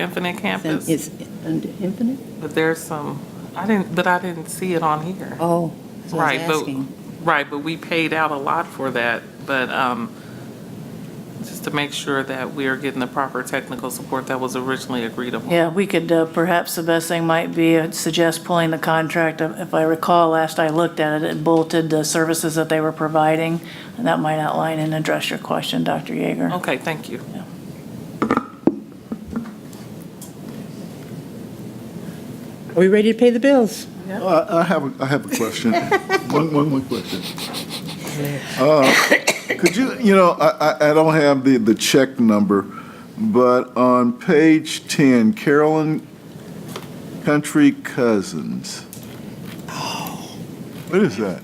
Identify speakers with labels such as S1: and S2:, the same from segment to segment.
S1: Infinite Campus,
S2: It's under infinite?
S1: but there's some, I didn't, but I didn't see it on here.
S2: Oh, that's what I
S1: Right,
S2: was
S1: but,
S2: asking.
S1: right, but we paid out a lot for that, but um, just to make sure that we are getting the proper technical support that was originally agreed upon.
S3: Yeah, we could, uh, perhaps the best thing might be, I'd suggest pulling the contract. Uh, If I recall, last I looked at it, it bulleted the services that they were providing, and that might outline and address your question, Dr. Yeager.
S1: Okay, thank you.
S4: Are we ready to pay the bills?
S5: Uh, I have, a I have a question. One, one more question. Uh, Could you, you know, I, I- I don't have the, the check number, but on page 10, Carolyn Country Cousins.
S3: Oh.
S5: What is that?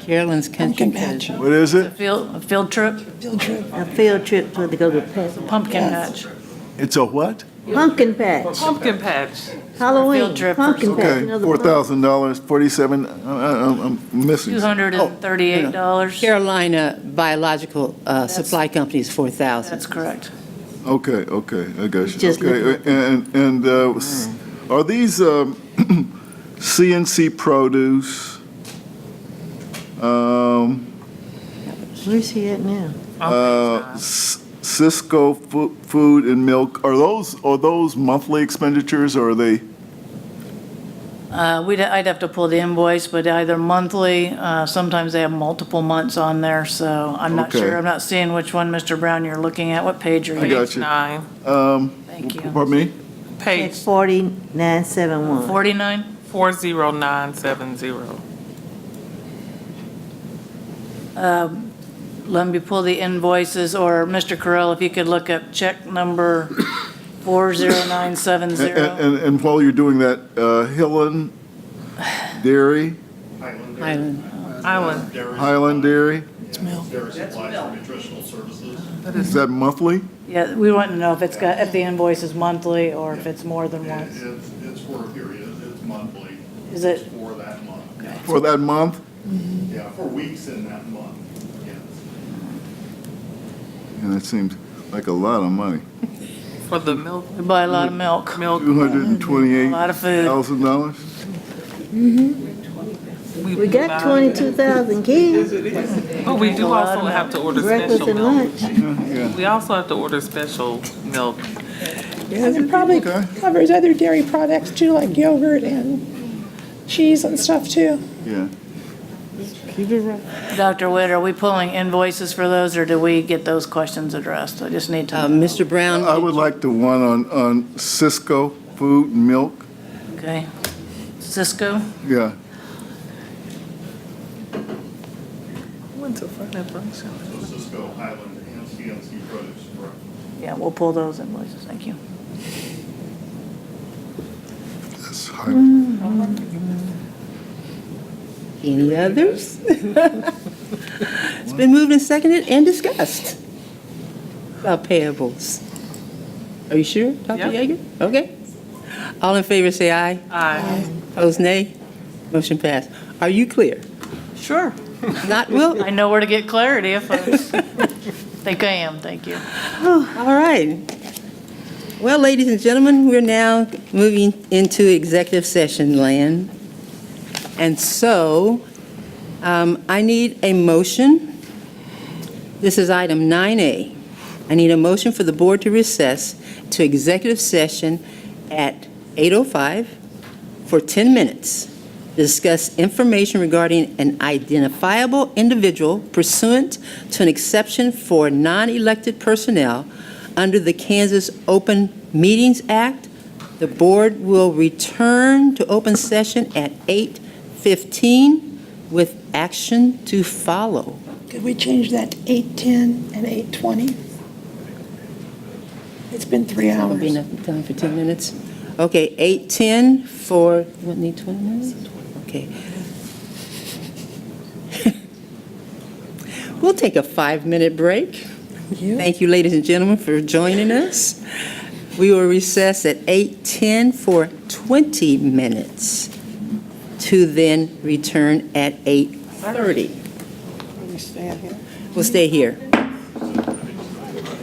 S2: Carolyn's Country
S6: match.
S2: Cousin.
S5: What is it?
S3: Field, a field trip,
S4: A field trip for to go to Pat-
S3: pumpkin patch.
S5: It's a what?
S4: Pumpkin Patch,
S1: Pumpkin patch.
S4: Halloween,
S3: Field trip.
S4: Pumpkin Patch.
S5: Okay,
S4: you know, the
S5: four thousand dollars, forty-seven, I'm missing.
S3: Two hundred and
S5: Oh,
S3: thirty-eight dollars.
S2: Carolina Biological uh, Supply Company's 4,000.
S3: That's correct.
S5: Okay, okay, I got you.
S4: Just
S5: Okay,
S4: looking
S5: and, and uh, s- are these um, CNC produce? um,
S4: pump- Where's he at now?
S5: uh, S- Cisco fu- Food and Milk, are those, are those monthly expenditures or are they?
S3: Uh, we'd, I'd have to pull the invoice, but either monthly, uh, sometimes they have multiple months on there, so I'm not
S5: Okay.
S3: sure. I'm not seeing which one, Mr. Brown, you're looking at. What page are
S5: I
S3: you?
S5: got
S1: Page
S5: you.
S1: nine,
S5: um,
S3: Thank you.
S5: Pardon me?
S1: page
S4: At 4971.
S3: Forty-nine?
S1: 40970.
S3: Um, let me pull the invoices, or Mr. Correll, if you could look up check number
S5: And-
S3: 40970.
S5: And, and while you're doing that, uh, Hillen Dairy,
S2: Highland.
S1: Island,
S5: Highland Dairy,
S7: Dairy supplies and nutritional services.
S5: is that monthly?
S3: Yeah, we want to know if it's got, if the invoice is monthly or if it's more than
S7: It-
S3: once.
S7: It's, it's for a period, it's monthly.
S3: Is it-
S7: It's For that month,
S5: For that month?
S7: yeah, for weeks in that month, yes.
S5: And that seems like a lot of money.
S1: for the milk,
S3: We buy a lot of milk,
S1: milk,
S5: Two hundred and
S3: a
S5: twenty-eight
S3: lot of food.
S5: thousand dollars?
S4: We got 22,000 kids,
S1: But Oh, we do
S3: A lot
S1: also
S3: of
S1: have to order
S4: breakfast
S1: special
S4: and
S1: milk.
S4: lunch.
S5: Yeah.
S1: We also have to order special milk.
S6: And it probably
S5: Okay.
S6: covers other dairy products too, like yogurt and cheese and stuff too.
S5: Yeah.
S3: Dr. Witt, are we pulling invoices for those, or do we get those questions addressed? I just need
S2: Uh,
S3: to, know.
S2: Mr. Brown?
S5: I would like the one on, on Cisco Food and Milk.
S3: okay. Cisco?
S5: Yeah.
S7: So Cisco, Highland, and CNC Produce, correct?
S3: Yeah, we'll pull those invoices, thank you.
S5: That's high.
S2: Any others? It's been moved and seconded and discussed about payables. Are you sure, Dr.
S1: Yeah.
S2: Yeager? Okay. All in favor, say aye.
S1: Aye.
S2: Opposed, nay. Motion passed. Are you clear?
S3: Sure.
S2: Not, Will?
S3: I know where to get clarity if I think I am, thank you.
S2: All right. Well, ladies and gentlemen, we're now moving into executive session land. And so um, I need a motion. This is item 9A. I need a motion for the board to recess to executive session at 8:05 for 10 minutes to discuss information regarding an identifiable individual pursuant to an exception for non-elected personnel under the Kansas Open Meetings Act. The board will return to open session at 8:15 with action to follow.
S6: Could we change that to 8:10 and 8:20? It's been three
S2: That would be
S6: hours.
S2: enough time for 10 minutes. Okay, 8:10 for, what, need 20 minutes? Okay. We'll take a five-minute break. Thank you, ladies and gentlemen, for joining us. We will recess at 8:10 for 20 minutes to then return at 8:30.
S6: Let me stand here.
S2: We'll stay here.